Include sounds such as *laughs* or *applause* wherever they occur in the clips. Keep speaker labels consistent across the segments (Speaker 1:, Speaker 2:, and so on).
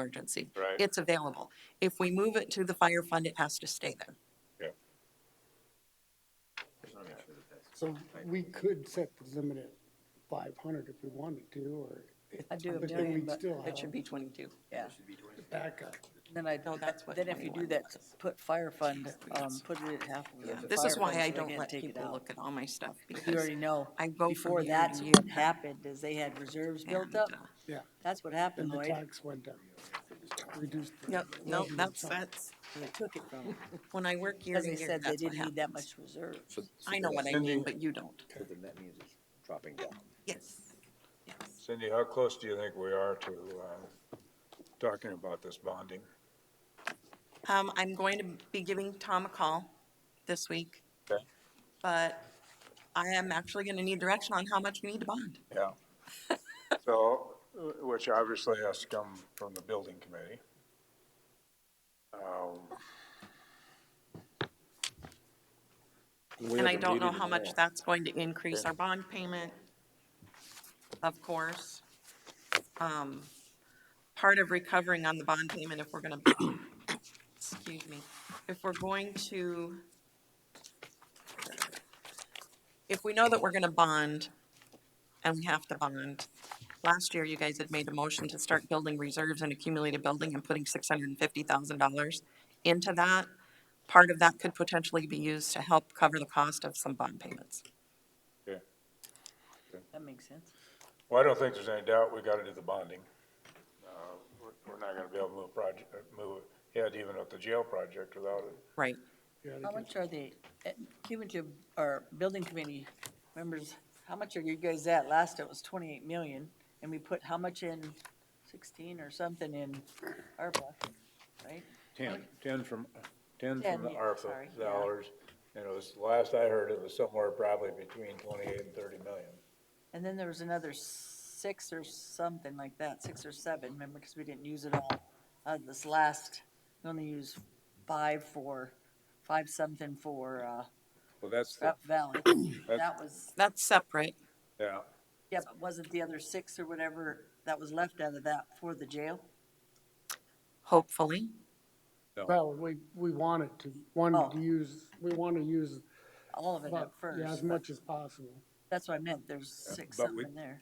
Speaker 1: emergency.
Speaker 2: Right.
Speaker 1: It's available. If we move it to the fire fund, it has to stay there.
Speaker 3: So we could set the limit at five hundred if we wanted to, or
Speaker 4: I do a
Speaker 3: But then
Speaker 4: million,
Speaker 3: we'd
Speaker 4: but,
Speaker 3: still
Speaker 1: It
Speaker 3: have
Speaker 1: should be twenty-two.
Speaker 4: yeah,
Speaker 3: backup.
Speaker 4: then I,
Speaker 1: No, that's what
Speaker 4: then if you do
Speaker 1: 21
Speaker 4: that,
Speaker 1: was.
Speaker 4: put fire fund, um,
Speaker 1: Yes.
Speaker 4: put it at half. of the
Speaker 1: This is
Speaker 4: fire
Speaker 1: why
Speaker 4: fund
Speaker 1: I
Speaker 4: so they
Speaker 1: don't
Speaker 4: can't
Speaker 1: let
Speaker 4: take it
Speaker 1: people
Speaker 4: out.
Speaker 1: look at all my stuff because
Speaker 4: You already know,
Speaker 1: I go from
Speaker 4: before
Speaker 1: year to
Speaker 4: that's
Speaker 1: year.
Speaker 4: what happened, is they had reserves built
Speaker 1: and,
Speaker 4: up,
Speaker 1: uh,
Speaker 3: Yeah,
Speaker 4: that's what
Speaker 3: and
Speaker 4: happened,
Speaker 3: the
Speaker 4: Lloyd,
Speaker 3: tax went down. Reduced. the
Speaker 1: No, no,
Speaker 3: revenue
Speaker 1: that's,
Speaker 3: tax.
Speaker 1: that's,
Speaker 4: they took it
Speaker 1: *laughs*
Speaker 4: from, them,
Speaker 1: when I work year
Speaker 4: because
Speaker 1: to
Speaker 4: they
Speaker 1: year,
Speaker 4: said they
Speaker 1: that's what
Speaker 4: didn't need that
Speaker 1: happens.
Speaker 4: much reserve.
Speaker 5: So- so
Speaker 1: I know
Speaker 5: then-
Speaker 1: what I mean, but you don't.
Speaker 5: So then that means it's dropping down.
Speaker 1: Yes, yes.
Speaker 2: Cindy, how close do you think we are to, uh, talking about this bonding?
Speaker 1: Um, I'm going to be giving Tom a call this week,
Speaker 2: Okay.
Speaker 1: but I am actually gonna need direction on how much we need to bond.
Speaker 2: Yeah. So, wh- which obviously has to come from the building committee. Um,
Speaker 1: And I don't know how much that's going to increase our bond payment, of course. Um, Part of recovering on the bond payment, if we're gonna, excuse me, if we're going to, if we know that we're gonna bond, and we have to bond, last year you guys had made a motion to start building reserves and accumulated building and putting six hundred and fifty thousand dollars into that part of that could potentially be used to help cover the cost of some bond payments.
Speaker 2: okay.
Speaker 4: That makes sense.
Speaker 2: Well, I don't think there's any doubt we gotta do the bonding. Uh, we're- We're not gonna be able to move project, move ahead even with the jail project without it.
Speaker 1: Right.
Speaker 3: Yeah, they
Speaker 4: How
Speaker 3: could-
Speaker 4: much are the, uh, cumulative, or building committee members, how much are you guys at? Last it was twenty-eight million, and we put how much in, sixteen or something in ARPA, right?
Speaker 2: Ten, ten from, ten
Speaker 4: Ten,
Speaker 2: from the
Speaker 4: yeah, sorry,
Speaker 2: ARPA
Speaker 4: yeah.
Speaker 2: dollars, and it was, last I heard, it was somewhere probably between twenty-eight and thirty million.
Speaker 4: And then there was another six or something like that, six or seven, remember, because we didn't use it all. Uh, this last, we only used five for, five something for, uh,
Speaker 2: Well, that's, the-
Speaker 4: Rep Valley. That was,
Speaker 1: That's separate.
Speaker 2: yeah,
Speaker 4: yeah, but wasn't the other six or whatever that was left out of that for the jail?
Speaker 1: Hopefully.
Speaker 3: Well, we, we wanted to, wanted
Speaker 4: Oh.
Speaker 3: to use, we want to use
Speaker 4: All of it at
Speaker 3: about, yeah,
Speaker 4: first,
Speaker 3: as
Speaker 4: but
Speaker 3: much as possible.
Speaker 4: that's what I meant, there's six
Speaker 2: but we-
Speaker 4: something there.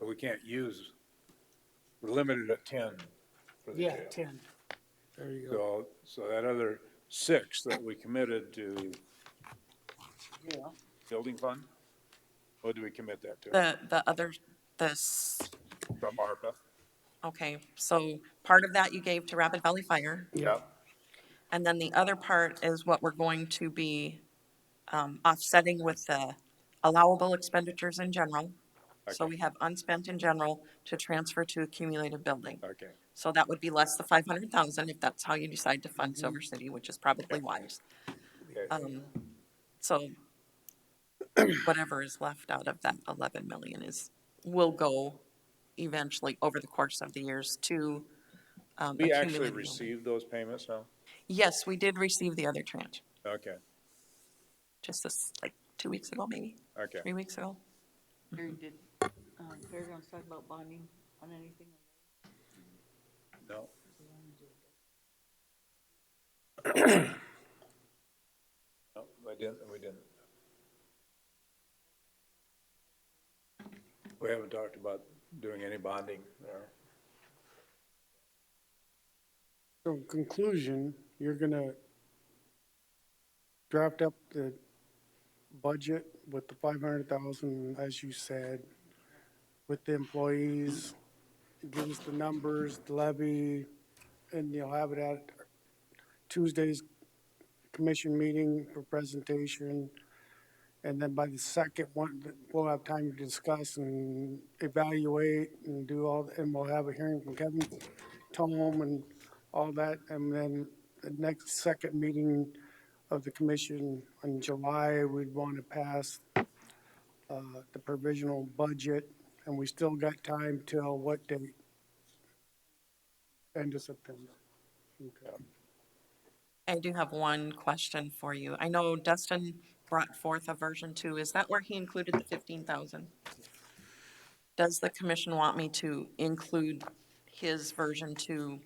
Speaker 2: but we can't use, we're limited at ten for the
Speaker 3: Yeah,
Speaker 2: jail.
Speaker 3: ten. There you go.
Speaker 2: So, so that other six that we committed to
Speaker 4: Yeah,
Speaker 2: building fund, what do we commit that to?
Speaker 1: The, the other, this,
Speaker 2: From ARPA?
Speaker 1: okay, so part of that you gave to Rapid Valley Fire.
Speaker 2: Yeah.
Speaker 1: And then the other part is what we're going to be um, offsetting with the allowable expenditures in general. So
Speaker 2: Okay.
Speaker 1: we have unspent in general to transfer to accumulated building.
Speaker 2: Okay,
Speaker 1: So that would be less the five hundred thousand if that's how you decide to fund Silver
Speaker 2: Mm-hmm.
Speaker 1: City, which is probably wise.
Speaker 2: Okay.
Speaker 1: Um, so whatever is left out of that eleven million is, will go eventually over the course of the years to. um,
Speaker 2: we actually
Speaker 1: accumulated-
Speaker 2: received those payments now?
Speaker 1: Yes, we did receive the other tranche,
Speaker 2: Okay,
Speaker 1: just this, like, two weeks ago, maybe,
Speaker 2: okay.
Speaker 1: three weeks ago.
Speaker 4: Gary, did, um, Fairgrounds talk about bonding on anything?
Speaker 2: No. No, we didn't, we didn't. We haven't talked about doing any bonding there.
Speaker 3: So in conclusion, you're gonna draft up the budget with the five hundred thousand, as you said, with the employees, give us the numbers, the levy, and you'll have it at Tuesday's commission meeting for presentation. And then by the second one, we'll have time to discuss and evaluate and do all, and we'll have a hearing from Kevin Tom and all that. And then the next second meeting of the commission in July, we'd want to pass uh, the provisional budget. And we still got time till what date? End of September. Okay.
Speaker 1: I do have one question for you. I know Dustin brought forth a version two. Is that where he included the fifteen thousand? Does the commission want me to include his version to